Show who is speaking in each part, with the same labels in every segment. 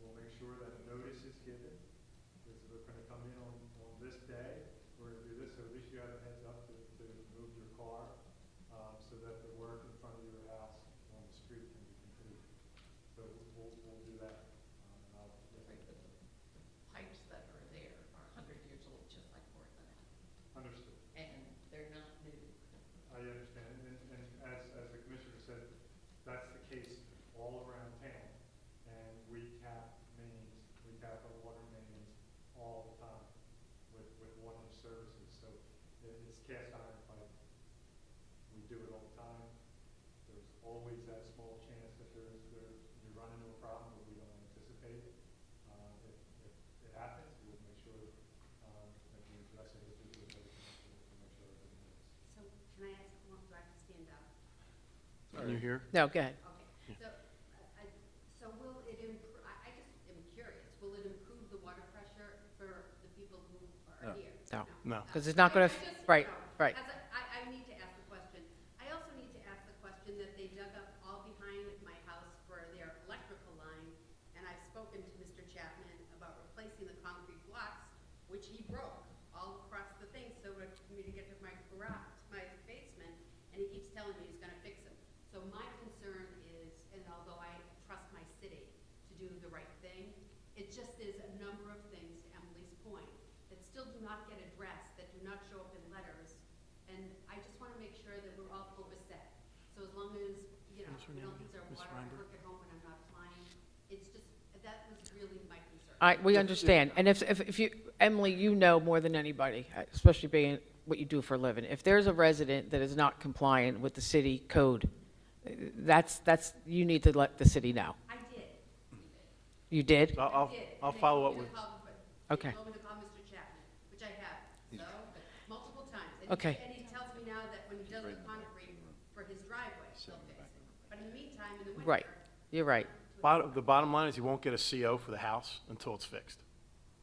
Speaker 1: We'll make sure that notice is given, this is going to come in on, on this day, we're gonna do this, so at least you have a heads up to, to move your car, um, so that the work in front of your house on the street can be completed. So we'll, we'll do that, um, and I'll.
Speaker 2: Right, but the pipes that are there are a hundred years old, just like Portland,
Speaker 1: Understood.
Speaker 2: and they're not new.
Speaker 1: I understand, and, and as, as the commissioner said, that's the case all around town. And we cap mains, we cap our water mains all the time with, with water services, so it- it's cast iron pipe. We do it all the time. There's always that small chance that there's, there, you run into a problem that we don't anticipate. Uh, if, if it happens, we'll make sure, um, that we address it, if we do it, we'll make sure everything is.
Speaker 3: So can I ask, one do I have to stand up?
Speaker 4: Can you hear?
Speaker 5: No, go ahead.
Speaker 3: Okay, so, uh, I, so will it improve, I, I just am curious, will it improve the water pressure for the people who
Speaker 4: No.
Speaker 3: are here?
Speaker 5: No.
Speaker 4: No.
Speaker 5: Because it's not gonna
Speaker 3: I- I
Speaker 5: f-
Speaker 3: just-
Speaker 5: right,
Speaker 3: no.
Speaker 5: right.
Speaker 3: As I- I, I need to ask the question. I also need to ask the question that they dug up all behind my house for their electrical line, and I've spoken to Mr. Chapman about replacing the concrete blocks, which he broke all across the thing, so that for me to get to my garage, my basement, and he keeps telling me he's gonna fix them. So my concern is, and although I trust my city to do the right thing, it just is a number of things, to Emily's point, that still do not get addressed, that do not show up in letters. And I just want to make sure that we're all focused set. So as long as, you know,
Speaker 4: What's her
Speaker 3: we don't
Speaker 4: name?
Speaker 3: lose our
Speaker 4: Ms.
Speaker 3: water, I work
Speaker 4: Reinberg?
Speaker 3: at home and I'm not flying. It's just, that was really my concern.
Speaker 5: I, we understand. And if, if, if you, Emily, you know more than anybody, uh, especially being what you do for a living. If there's a resident that is not compliant with the city code, uh, that's, that's, you need to let the city know.
Speaker 3: I did.
Speaker 5: You did?
Speaker 4: So I'll,
Speaker 3: I
Speaker 4: I'll-
Speaker 3: did.
Speaker 4: I'll
Speaker 3: And they
Speaker 4: follow up
Speaker 3: told me
Speaker 4: with,
Speaker 3: to call-
Speaker 5: Okay.
Speaker 3: They told me to call Mr. Chapman, which I have, so, but multiple times. And he-
Speaker 5: Okay.
Speaker 3: And he tells me now that when he does the concrete for his driveway, he'll fix it. But in the meantime, in the winter.
Speaker 5: Right. You're right.
Speaker 4: bottom, the bottom line is you won't get a CO for the house until it's fixed.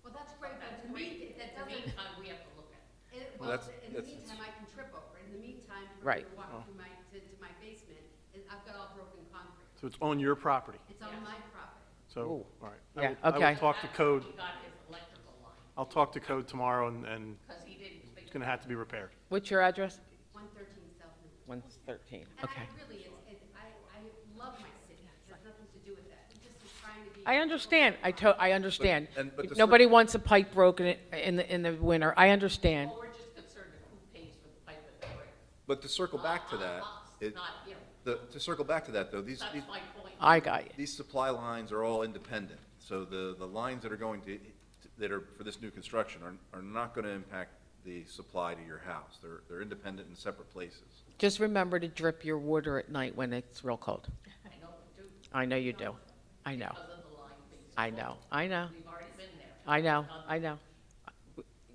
Speaker 3: Well, that's great, but in the mean- that
Speaker 2: The
Speaker 3: doesn't
Speaker 2: meantime, uh, we have to look at. it.
Speaker 3: It-
Speaker 6: Well,
Speaker 3: Well,
Speaker 6: that's-
Speaker 3: in the
Speaker 6: that's-
Speaker 3: meantime, I can trip over. In the meantime, for me
Speaker 5: Right.
Speaker 3: to walk through my, to, to my basement, and I've got all broken concrete.
Speaker 4: So it's on your property.
Speaker 3: It's on my property.
Speaker 4: So,
Speaker 5: Ooh.
Speaker 4: all right. I
Speaker 5: Yeah,
Speaker 4: will- I
Speaker 5: okay.
Speaker 4: will talk to
Speaker 2: That's
Speaker 4: code,
Speaker 2: how He got his electrical line,
Speaker 4: I'll talk to code tomorrow and, and
Speaker 2: because he didn't fix
Speaker 4: it's gonna have to be repaired.
Speaker 5: What's your address?
Speaker 3: One thirteen South Main.
Speaker 5: 113.
Speaker 3: And
Speaker 5: Okay.
Speaker 3: I really, it's, it's, I, I love my city. It has nothing to do with that. I'm just trying to be.
Speaker 5: I understand. I to, I understand.
Speaker 6: and- but the
Speaker 5: Nobody wants a pipe broken in the, in the winter. I understand.
Speaker 2: Well, we're just concerned of who pays for the pipe and the brick.
Speaker 6: But to circle back to that, it,
Speaker 2: Not him.
Speaker 6: the, to circle back to that though, these,
Speaker 2: That's
Speaker 6: these,
Speaker 2: my point.
Speaker 5: I got you.
Speaker 6: these supply lines are all independent. So the, the lines that are going to, that are for this new construction are, are not gonna impact the supply to your house. They're, they're independent in separate places.
Speaker 5: Just remember to drip your water at night when it's real cold.
Speaker 2: I know we do,
Speaker 5: I know you do. I know.
Speaker 2: because of the line things.
Speaker 5: I know. I know.
Speaker 2: We've already been there.
Speaker 5: I know, I know.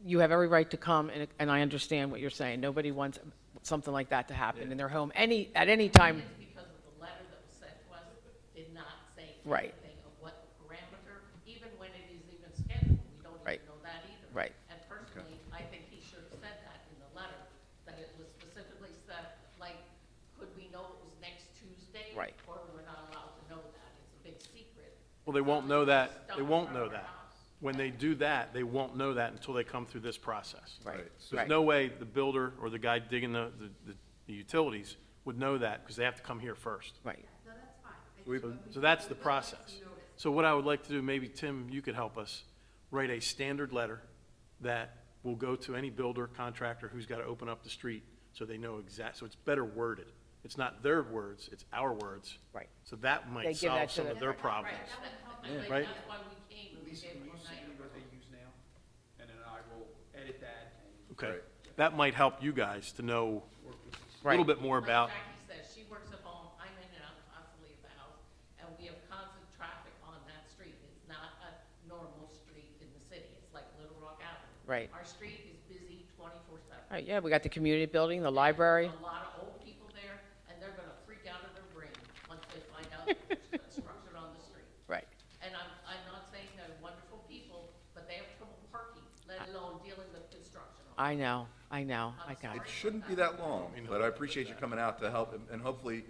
Speaker 5: You have every right to come, and, and I understand what you're saying. Nobody wants something like that to happen in their home, any, at any time.
Speaker 2: It's because of the letter that was sent to us, did not say
Speaker 5: Right.
Speaker 2: anything of what parameter, even when it is even scheduled, we don't
Speaker 5: Right.
Speaker 2: even know that either.
Speaker 5: Right.
Speaker 2: And personally, I think he should have said that in the letter, that it was specifically said, like, could we know it was next Tuesday?
Speaker 5: Right.
Speaker 2: Or we're not allowed to know that, it's a big secret.
Speaker 4: Well, they won't know that, they
Speaker 2: Stuff
Speaker 4: won't
Speaker 2: from
Speaker 4: know
Speaker 2: our
Speaker 4: that.
Speaker 2: house.
Speaker 4: When they do that, they won't know that until they come through this process.
Speaker 5: Right,
Speaker 6: So
Speaker 4: There's
Speaker 5: right,
Speaker 4: no way the builder or the guy digging the, the, the utilities would know that because they have to come here first.
Speaker 5: right.
Speaker 3: No, that's fine. I
Speaker 6: We-
Speaker 3: just-
Speaker 4: So that's the
Speaker 3: we would like some
Speaker 4: process.
Speaker 3: notice.
Speaker 4: So what I would like to do, maybe Tim, you could help us, write a standard letter that will go to any builder, contractor who's got to open up the street, so they know exact, so it's better worded. It's not their words, it's our words.
Speaker 5: Right.
Speaker 4: So that
Speaker 5: They
Speaker 4: might
Speaker 5: give
Speaker 4: solve
Speaker 5: that to
Speaker 4: some of
Speaker 5: the-
Speaker 4: their
Speaker 2: Right,
Speaker 4: problems.
Speaker 2: that would help.
Speaker 4: Right.
Speaker 2: Like, that's why we came, we
Speaker 7: Lisa,
Speaker 2: gave
Speaker 7: will
Speaker 2: one
Speaker 7: you send
Speaker 2: night.
Speaker 7: me what they use now? And then I will edit that and
Speaker 4: Okay.
Speaker 6: Right.
Speaker 4: That might help you guys to know
Speaker 7: work with this.
Speaker 4: a little
Speaker 5: Right.
Speaker 4: bit more about,
Speaker 2: Like Jackie says, she works at home, I'm in and out constantly at the house, and we have constant traffic on that street. It's not a normal street in the city, it's like Little Rock Avenue.
Speaker 5: Right.
Speaker 2: Our street is busy twenty-four seven.
Speaker 5: All right, yeah, we got the community building, the library.
Speaker 2: A lot of old people there, and they're gonna freak out of their brain once they find out there's construction on the street.
Speaker 5: Right,
Speaker 2: And I'm, I'm not saying they're wonderful people, but they have trouble parking, let alone dealing with construction. on
Speaker 5: I know, I know, I got you.
Speaker 6: It shouldn't be that long, but I appreciate you coming out to help and- and hopefully